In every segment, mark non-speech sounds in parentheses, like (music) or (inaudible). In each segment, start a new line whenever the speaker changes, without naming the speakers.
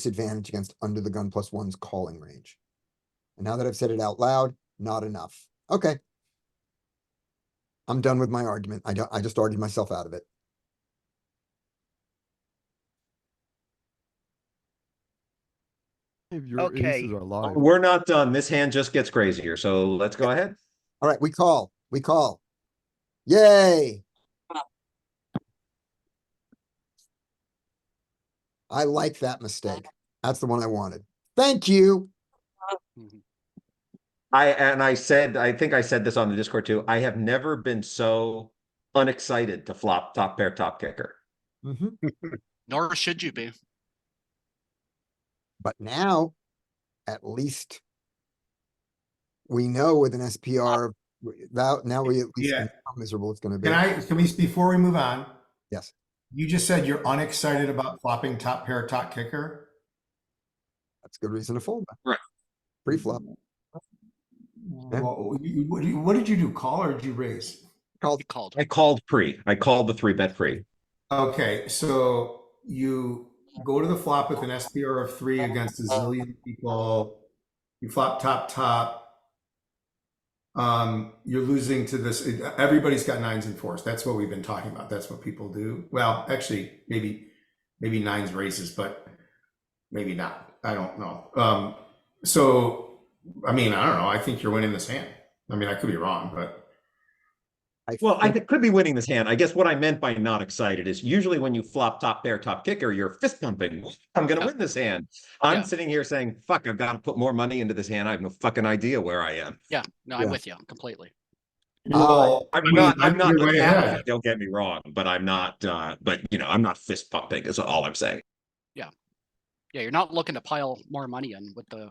disadvantage against under the gun plus one's calling range. And now that I've said it out loud, not enough. Okay. I'm done with my argument. I don't, I just argued myself out of it.
If your
Okay.
aces are live.
We're not done. This hand just gets crazier, so let's go ahead.
All right, we call, we call. Yay. I like that mistake. That's the one I wanted. Thank you.
I, and I said, I think I said this on the Discord too, I have never been so unexcited to flop top pair, top kicker.
Mhm.
Nor should you be.
But now, at least we know with an SPR, w- now, now we at least
Yeah.
know how miserable it's gonna be.
Can I, can we, before we move on?
Yes.
You just said you're unexcited about flopping top pair, top kicker.
That's a good reason to fold. back.
Right.
Pre-flop,
Well, you- What, do you- what did you do? Call or did you raise?
called,
He called.
I called pre, I called the three bet pre.
Okay, so you go to the flop with an SPR of three against a zillion people. You flop top, top. Um, you're losing to this, everybody's got nines and fours. That's what we've been talking about. That's what people do. Well, actually, maybe, maybe nines raises, but maybe not. I don't know. Um, so, I mean, I don't know. I think you're winning this hand. I mean, I could be wrong, but.
I
Well, I
think
could be winning this hand. I guess what I meant by not excited is usually when you flop top pair, top kicker, you're fist pumping. I'm gonna win this hand.
Yeah.
I'm sitting here saying, fuck, I've got to put more money into this hand. I have no fucking idea where I am.
Yeah, no,
Yeah.
I'm with you completely.
Well,
I'm
I mean,
not, I'm
you're
not,
way ahead.
don't get me wrong, but I'm not, uh, but you know, I'm not fist pumping is all I'm saying.
Yeah, you're not looking to pile more money in with the,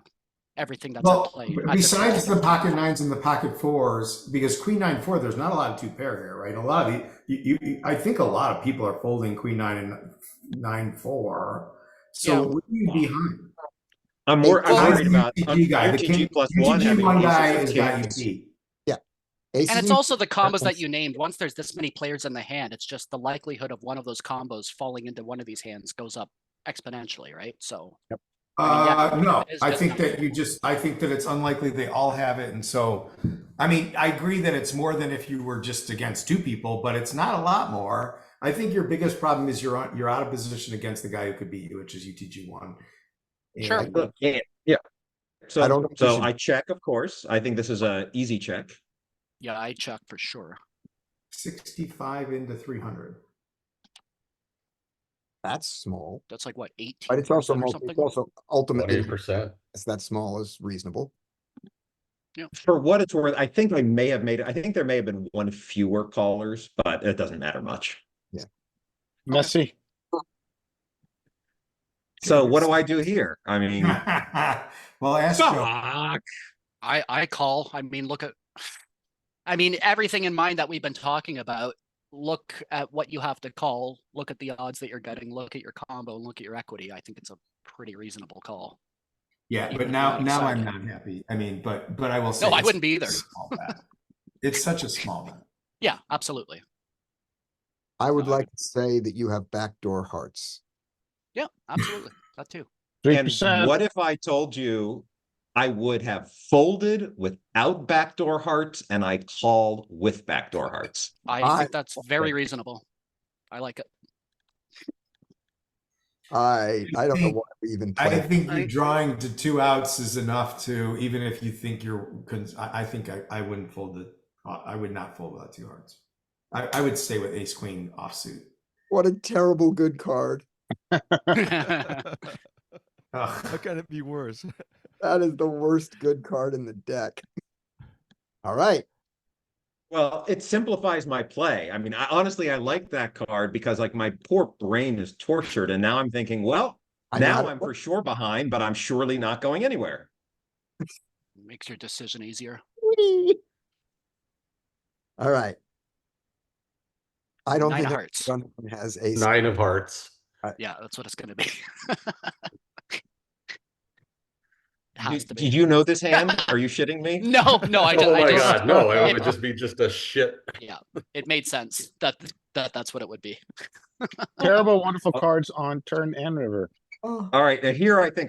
everything that's at
Well,
play.
b-
at this
besides
point.
the pocket nines and the pocket fours, because queen nine four, there's not a lot of two pair here, right? A lot of you, you, you I think a lot of people are folding queen nine and nine four. So
Yeah.
what are you behind?
I'm
Hey,
more,
well,
I'm worried
the
about.
UTG
I'm- your
guy, the
TG
king-
plus
UTG
one having
one
aces
guy E
and
has got you
kings.
beat.
aces
And it's
and-
also the combos that
one's-
you named. Once there's this many players in the hand, it's just the likelihood of one of those combos falling into one of these hands goes up exponentially, right? So, I
Uh,
mean, yeah,
no,
it is
I
just-
think that you just, I think that it's unlikely they all have it, and so, I mean, I agree that it's more than if you were just against two people, but it's not a lot more. I think your biggest problem is you're on, you're out of position against the guy who could beat you, which is UTG one.
Sure.
And-
Look, Yeah, yeah.
I don't
So,
think we
so
should-
I check, of course. I think this is a easy check.
yeah, I check for sure.
65 into 300.
That's small,
That's like what, eighteen?
but it's also,
or
multi-
something?
it's also ultimately,
percent.
it's that small is reasonable.
For what it's worth, I think I may have made, I think there may have been one fewer callers, but it doesn't matter much.
Messy.
So what do I do here? I mean,
(laughs) well, Astro,
fuck.
I I call. I mean, look at. I mean, everything in mind that we've been talking about. Look at what you have to call. Look at the odds that you're getting. Look at your combo and look at your equity. I think it's a pretty reasonable call.
yeah, but
I'm
now,
not
now I'm
excited.
not happy. I mean, but, but I will say.
No, I
it's
wouldn't be
such a
either.
small bet. It's such a small bet.
Yeah, absolutely.
I would
No, I-
like to say that you have backdoor hearts.
Yeah, absolutely. That too.
Three
And
percent.
what if I told you I would have folded without backdoor hearts and I called with backdoor hearts?
I,
I-
think that's very reasonable. I like it.
I, I don't know
think-
why we even
I
played.
think you
I-
drawing to two outs is enough to, even if you think you're, cons- I, I think I, I wouldn't fold the, I I would not fold without two hearts. I, I would stay with ace queen offsuit.
(laughs) What a terrible good card.
(laughs)
(laughs)
How
Ugh.
can it be worse?
That is the worst good card in the deck. All right,
Well, it simplifies my play. I mean, I honestly I like that card because like my poor brain is tortured and now I'm thinking, well,
I know how
now
to
I'm
play.
for sure behind, but I'm surely not going anywhere.
(laughs) Makes your decision easier.
all right. I don't
Nine
think
of
our
hearts.
gun has ace.
Nine of hearts.
Yeah, that's what it's gonna be. (laughs) It
Did-
has to
Did,
be.
you know this hand? Are you shitting
(laughs)
me?
No, no, I, ju-
oh
I
my
just
god, no! It
(laughs) it-
would just be just a shit.
it made sense that that that's what it would be.
Terrible, wonderful
Oh.
cards on turn and river.
Oh.
All right, now here I think